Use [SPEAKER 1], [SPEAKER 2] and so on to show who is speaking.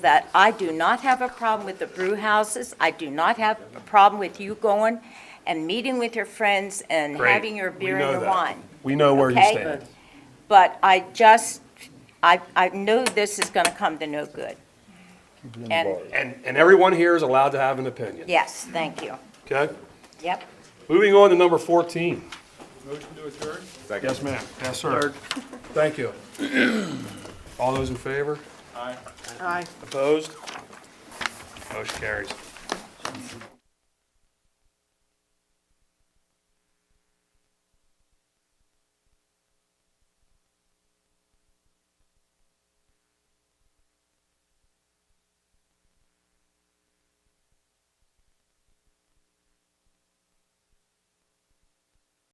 [SPEAKER 1] that I do not have a problem with the brew houses. I do not have a problem with you going and meeting with your friends and
[SPEAKER 2] Great.
[SPEAKER 1] having your
[SPEAKER 2] We
[SPEAKER 1] beer
[SPEAKER 2] know
[SPEAKER 1] and your
[SPEAKER 2] that.
[SPEAKER 1] wine.
[SPEAKER 2] We know where you
[SPEAKER 1] okay?
[SPEAKER 2] stand.
[SPEAKER 1] But I just, I, I know this is gonna come to no good. And,
[SPEAKER 2] And, and everyone here is allowed to have an opinion.
[SPEAKER 1] yes, thank you.
[SPEAKER 2] Okay?
[SPEAKER 1] Yep.
[SPEAKER 2] Moving on to number 14.
[SPEAKER 3] Motion to adjourn?
[SPEAKER 2] Yes, ma'am. Yes, sir. Thank you. All those in favor?
[SPEAKER 3] Aye.
[SPEAKER 2] Opposed? Motion carries.